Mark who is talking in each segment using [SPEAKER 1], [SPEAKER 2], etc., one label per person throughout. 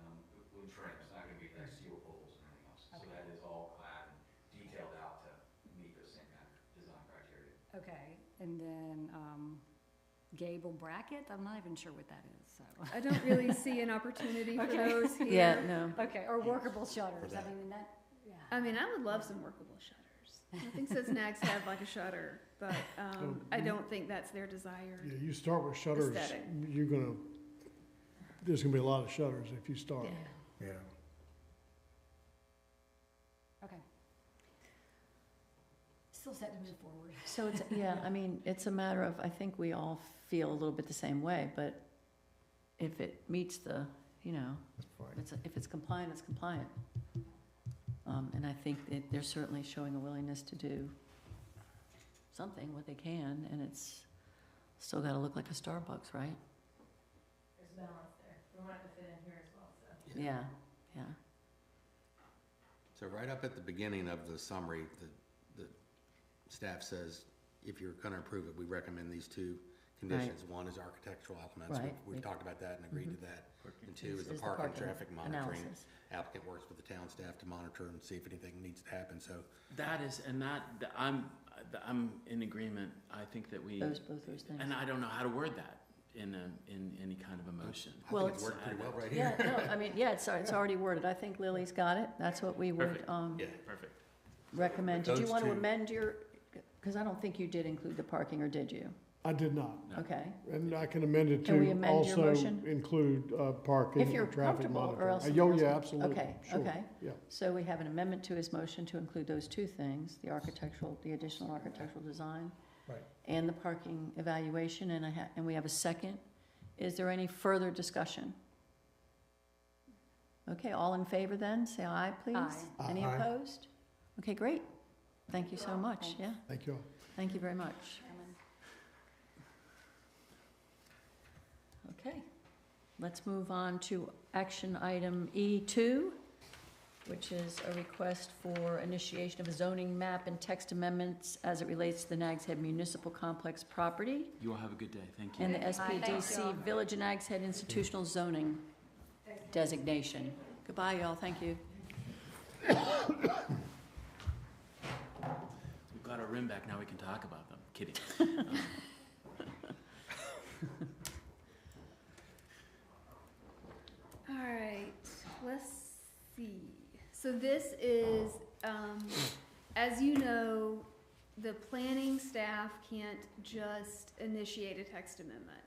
[SPEAKER 1] Um, trim, it's not gonna be like steel poles and anything else. So
[SPEAKER 2] Okay.
[SPEAKER 1] that is all clad and detailed out to meet those same kind of design criteria.
[SPEAKER 2] Okay, and then, um, gable bracket, I'm not even sure what that is, so.
[SPEAKER 3] I don't really see an opportunity for
[SPEAKER 2] Okay.
[SPEAKER 3] those here.
[SPEAKER 4] Yeah, no.
[SPEAKER 2] Okay, or workable shutters, I
[SPEAKER 5] that.
[SPEAKER 2] mean, that, yeah.
[SPEAKER 3] I mean, I would love some workable shutters. Nothing says nags have like a shutter, but um, I don't think that's their
[SPEAKER 6] Yeah,
[SPEAKER 3] desire.
[SPEAKER 6] you start with shutters,
[SPEAKER 3] Aesthetic.
[SPEAKER 6] you're gonna, there's gonna be a lot of shutters if you start.
[SPEAKER 5] Yeah.
[SPEAKER 2] Okay. Still set to move forward.
[SPEAKER 4] So it's, yeah, I mean, it's a matter of, I think we all feel a little bit the same way, but if it meets the, you know,
[SPEAKER 5] That's
[SPEAKER 4] if
[SPEAKER 5] fine.
[SPEAKER 4] it's, if it's compliant, it's compliant. Um, and I think that they're certainly showing a willingness to do something, what they can, and it's still gotta look like a Starbucks, right?
[SPEAKER 7] There's balance there. We want it to fit in here as well, so.
[SPEAKER 4] Yeah, yeah.
[SPEAKER 8] So right up at the beginning of the summary, the, the staff says, if you're gonna approve it, we recommend these two conditions. One is architectural elements, We've-
[SPEAKER 4] Right. Mm-hmm.
[SPEAKER 8] we've talked about that and agreed to that. And two is the
[SPEAKER 4] Is the
[SPEAKER 8] park and
[SPEAKER 4] parking
[SPEAKER 8] traffic monitoring.
[SPEAKER 4] analysis.
[SPEAKER 8] Applicant works with the town staff to monitor and see if anything needs to happen, so
[SPEAKER 9] That is, and that, th- I'm, th- I'm in agreement, I think that we,
[SPEAKER 4] Those, both those things.
[SPEAKER 9] and I don't know how to word that in a, in any kind of emotion.
[SPEAKER 8] I
[SPEAKER 4] Well,
[SPEAKER 8] think it's
[SPEAKER 4] it's-
[SPEAKER 8] worked pretty well right
[SPEAKER 4] Yeah,
[SPEAKER 8] here.
[SPEAKER 4] no, I mean, yeah, it's, it's already worded. I think Lily's got it. That's what we would,
[SPEAKER 9] Perfect.
[SPEAKER 4] um,
[SPEAKER 8] Yeah.
[SPEAKER 9] Perfect.
[SPEAKER 4] recommend. Did you
[SPEAKER 8] Those
[SPEAKER 4] want to
[SPEAKER 8] two.
[SPEAKER 4] amend your, because I don't think you did include the parking, or did you?
[SPEAKER 6] I did not,
[SPEAKER 9] No.
[SPEAKER 4] Okay.
[SPEAKER 6] and I can amend it
[SPEAKER 4] Can we
[SPEAKER 6] to
[SPEAKER 4] amend your
[SPEAKER 6] also
[SPEAKER 4] motion?
[SPEAKER 6] include uh, parking
[SPEAKER 4] If you're
[SPEAKER 6] and traffic
[SPEAKER 4] comfortable,
[SPEAKER 6] monitoring.
[SPEAKER 4] or else
[SPEAKER 6] Uh,
[SPEAKER 4] someone
[SPEAKER 6] yo-
[SPEAKER 4] else
[SPEAKER 6] Yeah,
[SPEAKER 4] can-
[SPEAKER 6] absolutely,
[SPEAKER 4] Okay,
[SPEAKER 6] sure,
[SPEAKER 4] okay.
[SPEAKER 6] yeah.
[SPEAKER 4] So we have an amendment to his motion to include those two things, the architectural, the additional architectural design.
[SPEAKER 5] Right.
[SPEAKER 4] And the parking evaluation, and I ha, and we have a second. Is there any further discussion? Okay, all in favor then, say aye, please.
[SPEAKER 5] Aye.
[SPEAKER 4] Any
[SPEAKER 5] Aye.
[SPEAKER 4] opposed? Okay, great. Thank you so much, yeah.
[SPEAKER 6] Thank you all.
[SPEAKER 4] Thank you very much. Okay, let's move on to action item E2, which is a request for initiation of a zoning map and text amendments as it relates to the Nags Head Municipal Complex property
[SPEAKER 9] You all have a good day, thank you.
[SPEAKER 4] and the
[SPEAKER 2] Thank you.
[SPEAKER 4] SPDC Village and Nags Head Institutional Zoning designation. Goodbye, y'all, thank you.
[SPEAKER 9] We've got our room back, now we can talk about them, kidding. Um,
[SPEAKER 3] All right, let's see. So this is, um, as you know, the planning staff can't just initiate a text amendment.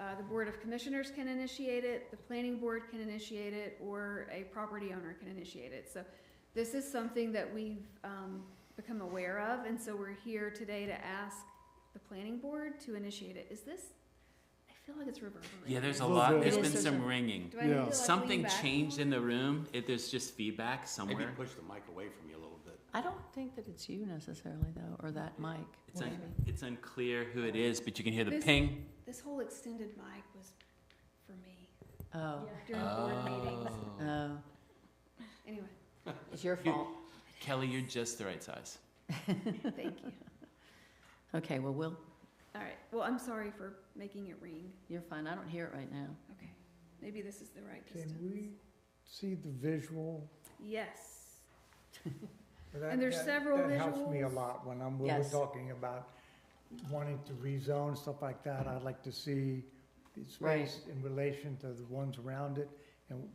[SPEAKER 3] Uh, the Board of Commissioners can initiate it, the planning board can initiate it, or a property owner can initiate it. So this is something that we've, um, become aware of, and so we're here today to ask the planning board to initiate it. Is this, I feel like it's reverberating.
[SPEAKER 9] Yeah, there's a
[SPEAKER 6] Little
[SPEAKER 9] lot,
[SPEAKER 6] bit.
[SPEAKER 9] there's
[SPEAKER 4] It
[SPEAKER 9] been
[SPEAKER 4] is, there's
[SPEAKER 9] some
[SPEAKER 4] a-
[SPEAKER 9] ringing.
[SPEAKER 3] Do I need to
[SPEAKER 6] Yeah.
[SPEAKER 3] like lean
[SPEAKER 9] Something
[SPEAKER 3] back?
[SPEAKER 9] changed in the room, it, there's just feedback
[SPEAKER 8] Maybe
[SPEAKER 9] somewhere.
[SPEAKER 8] push the mic away from you a little bit.
[SPEAKER 4] I don't think that it's you necessarily, though, or that mic.
[SPEAKER 9] It's, un-
[SPEAKER 4] Maybe.
[SPEAKER 9] it's unclear who it is, but you can hear the
[SPEAKER 3] This-
[SPEAKER 9] ping.
[SPEAKER 3] This whole extended mic was for me
[SPEAKER 4] Oh,
[SPEAKER 3] during board meetings.
[SPEAKER 9] Oh.
[SPEAKER 4] oh,
[SPEAKER 3] Anyway,
[SPEAKER 4] it's your fault.
[SPEAKER 9] Kelly, you're just the right size.
[SPEAKER 3] thank you.
[SPEAKER 4] Okay, well, Will,
[SPEAKER 3] All right. Well, I'm sorry for making it ring.
[SPEAKER 4] you're fine. I don't hear it right now.
[SPEAKER 3] Okay. Maybe this is the right
[SPEAKER 5] Can
[SPEAKER 3] distance.
[SPEAKER 5] we see the visual?
[SPEAKER 3] Yes.
[SPEAKER 5] That-
[SPEAKER 3] And there's
[SPEAKER 5] that-
[SPEAKER 3] several
[SPEAKER 5] That helps me a
[SPEAKER 3] visuals.
[SPEAKER 5] lot when I'm, when we're
[SPEAKER 4] Yes.
[SPEAKER 5] talking about wanting to rezone, stuff like that. I'd like to see the
[SPEAKER 4] Right.
[SPEAKER 5] space in relation to the ones around it and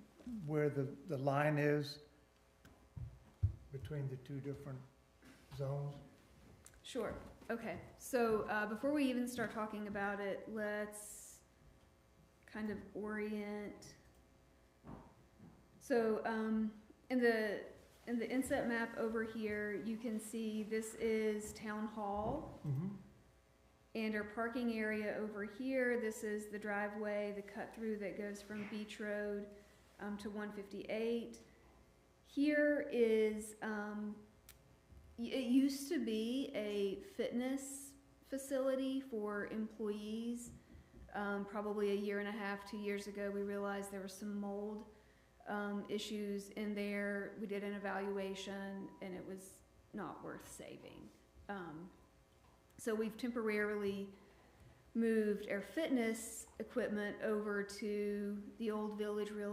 [SPEAKER 5] where the, the line is between the two different zones.
[SPEAKER 3] Sure. Okay. So uh, before we even start talking about it, let's kind of orient. So um, in the in the inset map over here, you can see this is town hall.
[SPEAKER 5] Mm-hmm.
[SPEAKER 3] And our parking area over here, this is the driveway, the cut through that goes from Beach Road um, to one fifty-eight. Here is, um, y- it used to be a fitness facility for employees. Um, probably a year and a half, two years ago, we realized there was some mold um, issues in there. We did an evaluation and it was not worth saving. Um, so we've temporarily moved our fitness equipment over to the old Village Real